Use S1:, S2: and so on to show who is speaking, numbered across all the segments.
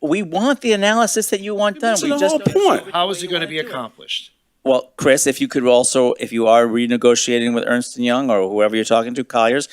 S1: we want the analysis that you want done.
S2: That's
S1: We
S2: the
S1: just
S2: whole point.
S3: How is it going to be accomplished?
S1: Well, Chris, if you could also, if you are renegotiating with Ernst and Young or whoever you're talking to, Colliers,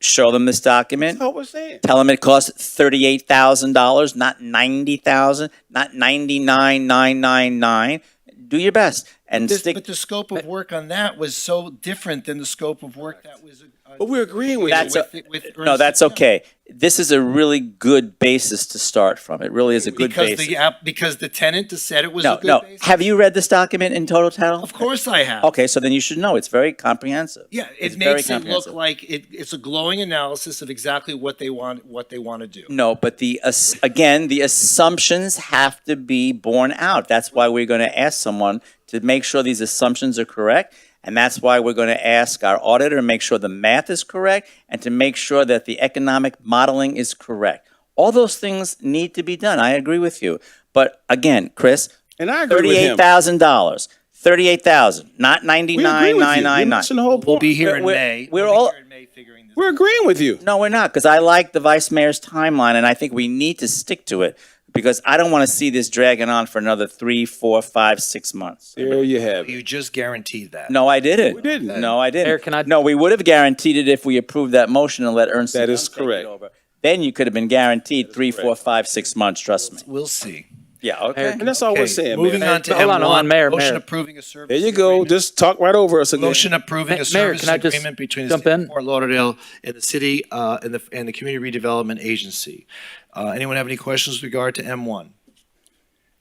S1: show them this document.
S2: That's what we're saying.
S1: Tell them it costs thirty-eight thousand dollars, not ninety thousand, not ninety-nine nine nine nine. Do your best and
S3: This-
S1: stick.
S3: But the scope of work on that was so different than the scope of work that was. uh,
S2: But we're agreeing with
S1: That's
S2: you.
S1: a,
S3: with- with
S1: no,
S3: Ernst
S1: that's
S3: and Young.
S1: okay. This is a really good basis to start from. It really is a good
S3: Because the,
S1: basis.
S3: app- because the tenant said it was a
S1: No,
S3: good
S1: no.
S3: basis?
S1: Have you read this document in total title?
S3: Of course I have.
S1: Okay, so then you should know. It's very comprehensive.
S3: Yeah,
S1: It's
S3: it
S1: very
S3: makes it look
S1: comprehensive.
S3: like it, it's a glowing analysis of exactly what they want, what they want to do.
S1: No, but the, ass- again, the assumptions have to be borne out. That's why we're going to ask someone to make sure these assumptions are correct. And that's why we're going to ask our auditor to make sure the math is correct and to make sure that the economic modeling is correct. All those things need to be done. I agree with you. But again, Chris,
S2: And I agree with him.
S1: thirty-eight thousand dollars, thirty-eight thousand, not
S2: We agree
S1: ninety-nine,
S2: with
S1: nine,
S2: you. You're
S1: nine, nine.
S2: missing the whole
S3: We'll
S2: point.
S3: be here in
S1: We're-
S3: May.
S1: we're
S3: We'll be
S1: all-
S3: here in May figuring this
S2: We're agreeing with you.
S1: No, we're not, because I like the vice mayor's timeline, and I think we need to stick to it because I don't want to see this dragging on for another three, four, five, six months.
S2: There you have it.
S3: You just guaranteed that.
S1: No, I didn't. We
S2: didn't.
S1: No, I didn't.
S4: Eric, can I-
S1: No, we would have guaranteed it if we approved that motion and let Ernst. and
S2: That is
S1: Young take it
S2: correct.
S1: over. Then you could have been guaranteed three, four, five, six months. Trust me.
S3: We'll see.
S1: Yeah. Okay.
S4: Eric,
S2: And that's all we're
S3: Okay,
S2: saying,
S3: Moving
S2: man.
S3: on to
S4: Hold on, hold on,
S3: M1,
S4: Mayor,
S3: motion
S4: Mayor.
S3: approving a service.
S2: There you go.
S3: agreement-
S2: Just talk right over us again.
S3: Motion approving
S4: Ma-
S3: a
S4: Mayor,
S3: service
S4: can I just
S3: agreement between the
S4: jump
S3: city
S4: in?
S3: of Fort Lauderdale and the city, uh, and the, and the Community Redevelopment Agency. Uh, anyone have any questions with regard to M one?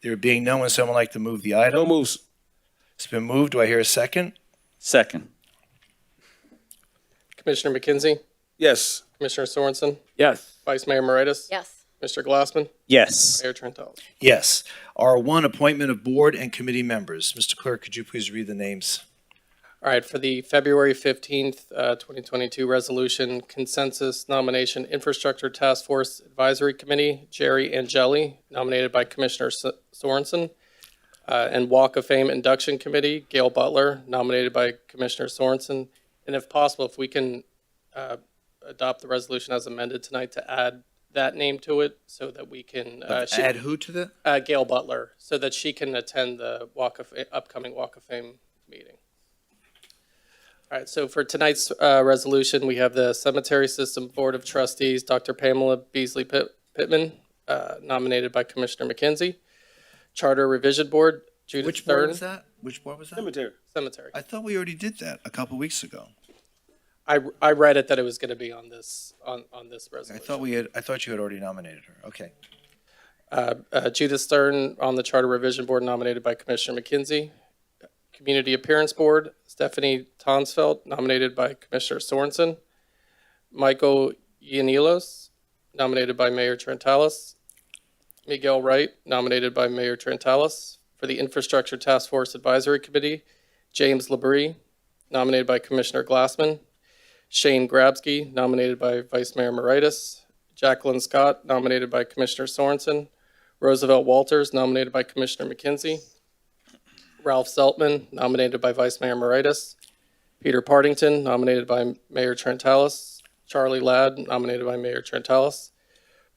S3: There being no one, someone like to move the
S2: No
S3: item?
S2: moves.
S3: It's been moved. Do I hear a second?
S1: Second.
S5: Commissioner McKenzie,
S2: Yes.
S5: Commissioner Sorensen,
S4: Yes.
S5: Vice Mayor Moritas,
S6: Yes.
S5: Mr. Glassman,
S1: Yes.
S5: Mayor Trentalles.
S3: Yes. R1, appointment of board and committee members. Mr. Clerk, could you please read the names?
S5: All right, for the February 15th, uh, 2022 resolution consensus nomination infrastructure task force advisory committee, Jerry Angeli, nominated by Commissioner S- Sorensen, uh, and Walk of Fame induction committee, Gail Butler, nominated by Commissioner Sorensen. And if possible, if we can uh, adopt the resolution as amended tonight to add that name to it so that we can. uh, she-
S3: Add who to the?
S5: uh, Gail Butler so that she can attend the Walk of upcoming Walk of Fame meeting. All right, so for tonight's uh, resolution, we have the Cemetery System Board of Trustees, Dr. Pamela Beasley Pitt- Pittman, uh, nominated by Commissioner McKenzie. Charter Revision Board, Judith
S3: Which board was
S5: Stern,
S3: that? Which board was that?
S2: Cemetery.
S5: Cemetery.
S3: I thought we already did that a couple weeks ago.
S5: I, I read it that it was going to be on this, on, on this
S3: I
S5: resolution.
S3: thought we had, I thought you had already nominated her. Okay.
S5: Uh, uh, Judith Stern on the Charter Revision Board nominated by Commissioner McKenzie. Community Appearance Board, Stephanie Tonsfeld nominated by Commissioner Sorensen. Michael Ianilos nominated by Mayor Trentalis. Miguel Wright nominated by Mayor Trentalis. For the Infrastructure Task Force Advisory Committee, James Labrie nominated by Commissioner Glassman. Shane Grabsky nominated by Vice Mayor Moritas. Jacqueline Scott nominated by Commissioner Sorensen. Roosevelt Walters, nominated by Commissioner McKenzie. Ralph Seltman, nominated by Vice Mayor Moritas. Peter Partington, nominated by Mayor Trentalis. Charlie Ladd, nominated by Mayor Trentalis.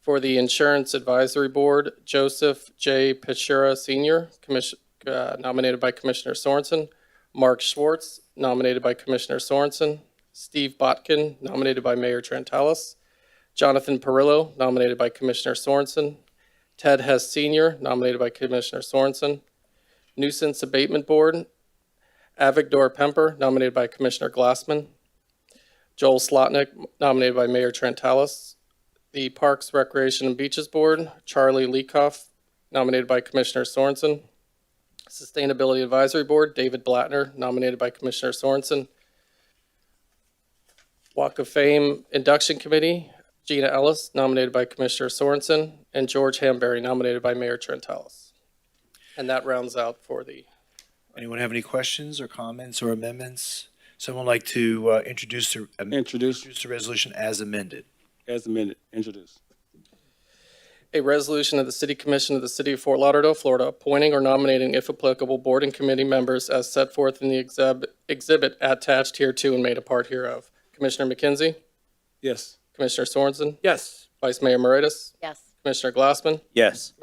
S5: For the Insurance Advisory Board, Joseph J. Pichura Senior, commis- uh, nominated by Commissioner Sorensen. Mark Schwartz, nominated by Commissioner Sorensen. Steve Botkin, nominated by Mayor Trentalis. Jonathan Perillo, nominated by Commissioner Sorensen. Ted Hess Senior, nominated by Commissioner Sorensen. Nuisance Abatement Board, Avigdor Pemper, nominated by Commissioner Glassman. Joel Slotnick, nominated by Mayor Trentalis. The Parks, Recreation, and Beaches Board, Charlie Leacoff, nominated by Commissioner Sorensen. Sustainability Advisory Board, David Blattner, nominated by Commissioner Sorensen. Walk of Fame Induction Committee, Gina Ellis, nominated by Commissioner Sorensen, and George Hamberry, nominated by Mayor Trentalis. And that rounds out for the,
S3: Anyone have any questions or comments or amendments? Someone like to uh, introduce the, am-
S2: Introduce
S3: introduce the resolution as amended?
S2: as a minute. Introduce.
S5: a resolution of the City Commission of the City of Fort Lauderdale, Florida, appointing or nominating, if applicable, board and committee members as set forth in the exhib- exhibit attached here to and made a part hereof. Commissioner McKenzie,
S2: Yes.
S5: Commissioner Sorensen,
S4: Yes.
S5: Vice Mayor Moritas,
S6: Yes.
S5: Commissioner Glassman,
S1: Yes.